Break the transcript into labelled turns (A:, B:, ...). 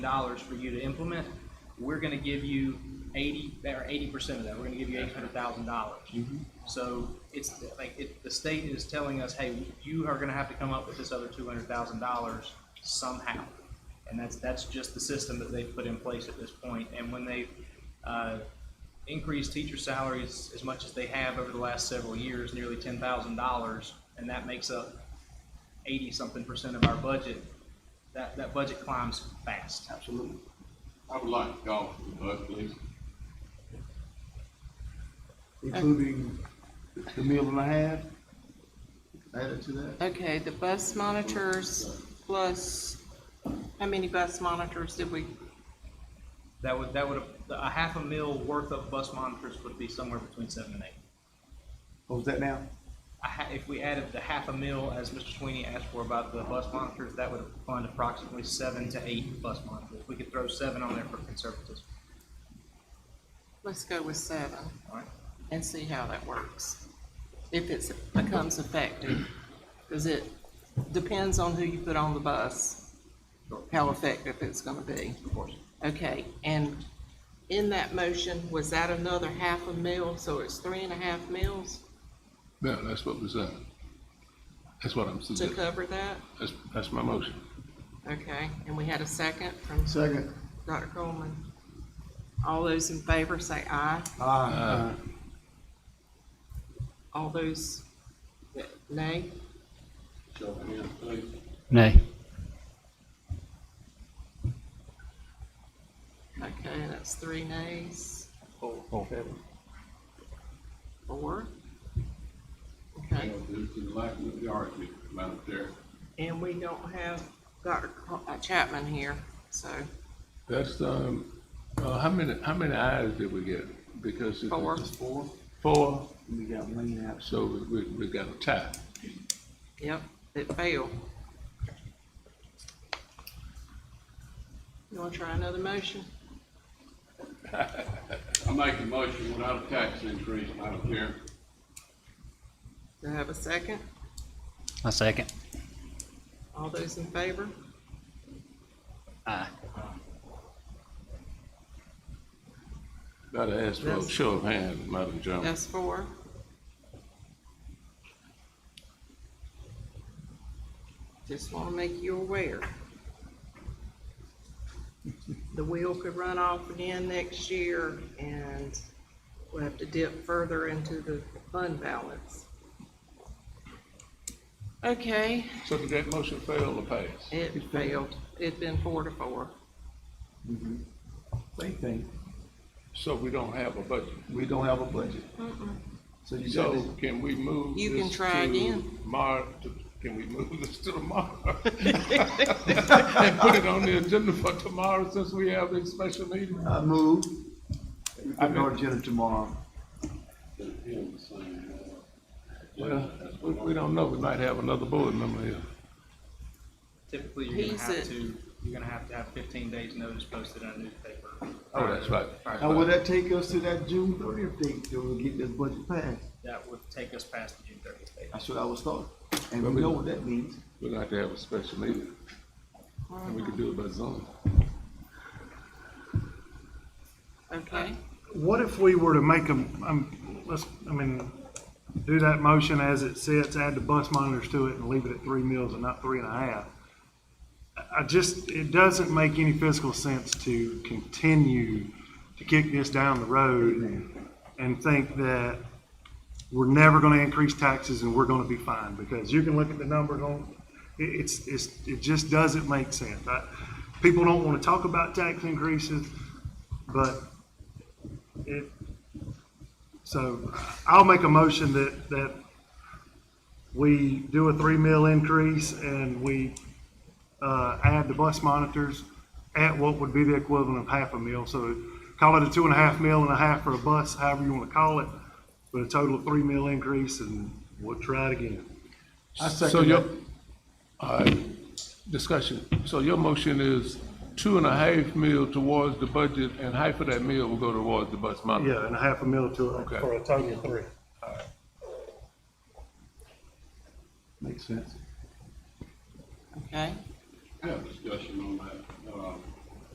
A: dollars for you to implement, we're gonna give you eighty, or eighty percent of that, we're gonna give you eight hundred thousand dollars. So it's like, it, the state is telling us, hey, you are gonna have to come up with this other two hundred thousand dollars somehow. And that's, that's just the system that they've put in place at this point. And when they, uh, increased teacher salaries as much as they have over the last several years, nearly ten thousand dollars, and that makes up eighty-something percent of our budget, that, that budget climbs fast.
B: Absolutely. I would like to call for the vote, please.
C: including the meal and a half? Added to that?
D: Okay, the bus monitors plus, how many bus monitors did we,
A: That would, that would, a half a mil worth of bus monitors would be somewhere between seven and eight.
C: Oh, is that now?
A: A ha- If we added the half a mil, as Mr. Sweeney asked for about the bus monitors, that would fund approximately seven to eight bus monitors. We could throw seven on there for conservatism,
D: let's go with seven
A: all right?
D: and see how that works. If it's, becomes effective, because it depends on who you put on the bus, how effective it's gonna be.
A: Of course.
D: Okay, and in that motion, was that another half a mil, so it's three and a half mils
E: Yeah, that's what was, uh, that's what I'm
D: to
E: suggesting.
D: cover that?
E: That's, that's my motion.
D: Okay, and we had a second from
C: Second.
D: Dr. Coleman. All those in favor say aye.
C: Aye.
D: All those that nay?
B: Show of hands, please.
F: Nay.
D: Okay, that's three nays. Four.
B: You
D: Okay,
B: know, Due to the lack of majority, Madam Chair.
D: and we don't have Dr. Co- uh, Chapman here, so
E: That's, um, uh, how many, how many ayes did we get? Because it's
D: four.
C: Four.
E: Four,
C: We got one out.
E: so we, we, we got a tie.
D: Yep, it failed. You wanna try another motion?
B: I make a motion without a tax increase, Madam Chair.
D: Do I have a second?
F: I second.
D: All those in favor?
F: Aye.
E: Not to ask for a
D: Yes.
E: show of hands, Madam Jones.
D: That's four. Just wanna make you aware. The wheel could run off again next year and we'll have to dip further into the fund balance. Okay,
E: So did that motion fail to pass?
D: it failed. It's been four to four.
C: Same thing.
E: So we don't have a budget.
C: We don't have a budget. So you
E: So
C: got it.
E: can we move
D: You can
E: this
D: try
E: to
D: again.
E: Mar, to- can we move this to tomorrow? And put it on the agenda for tomorrow since we have this special meeting?
C: I move. We
E: I
C: put it on agenda tomorrow.
B: Then him the same, uh,
E: Well, we, we don't know, we might have another board member here.
A: Typically, you're gonna
D: He's
A: have
D: a-
A: to, you're gonna have to have fifteen days notice posted in a newspaper.
E: Oh, that's right.
C: Now, will that take us to that June thirtieth date that we'll get this budget passed?
A: That would take us past the June thirtieth date.
C: That's what I was thought. And we know what that means.
E: We'd like to have a special meeting, and we can do it by Zoom.
D: Okay,
G: What if we were to make them, um, let's, I mean, do that motion as it sits, add the bus monitors to it and leave it at three meals and not three and a half? I- I just, it doesn't make any fiscal sense to continue to kick this down the road and think that we're never gonna increase taxes and we're gonna be fine, because you can look at the numbers on, it, it's, it's, it just doesn't make sense. I- People don't wanna talk about tax increases, but it, so I'll make a motion that, that we do a three mil increase and we, uh, add the bus monitors at what would be the equivalent of half a mil. So call it a two and a half mil and a half for a bus, however you want to call it, but a total of three mil increase and we'll try it again.
C: I
E: So
C: second
E: your,
C: that.
E: all right, discussion. So your motion is two and a half mil towards the budget, and half of that mil will go towards the bus monitor.
G: Yeah, and a half a mil to,
E: Okay.
G: for a total of three.
C: Makes sense.
D: okay.
B: I have a discussion on that. Uh,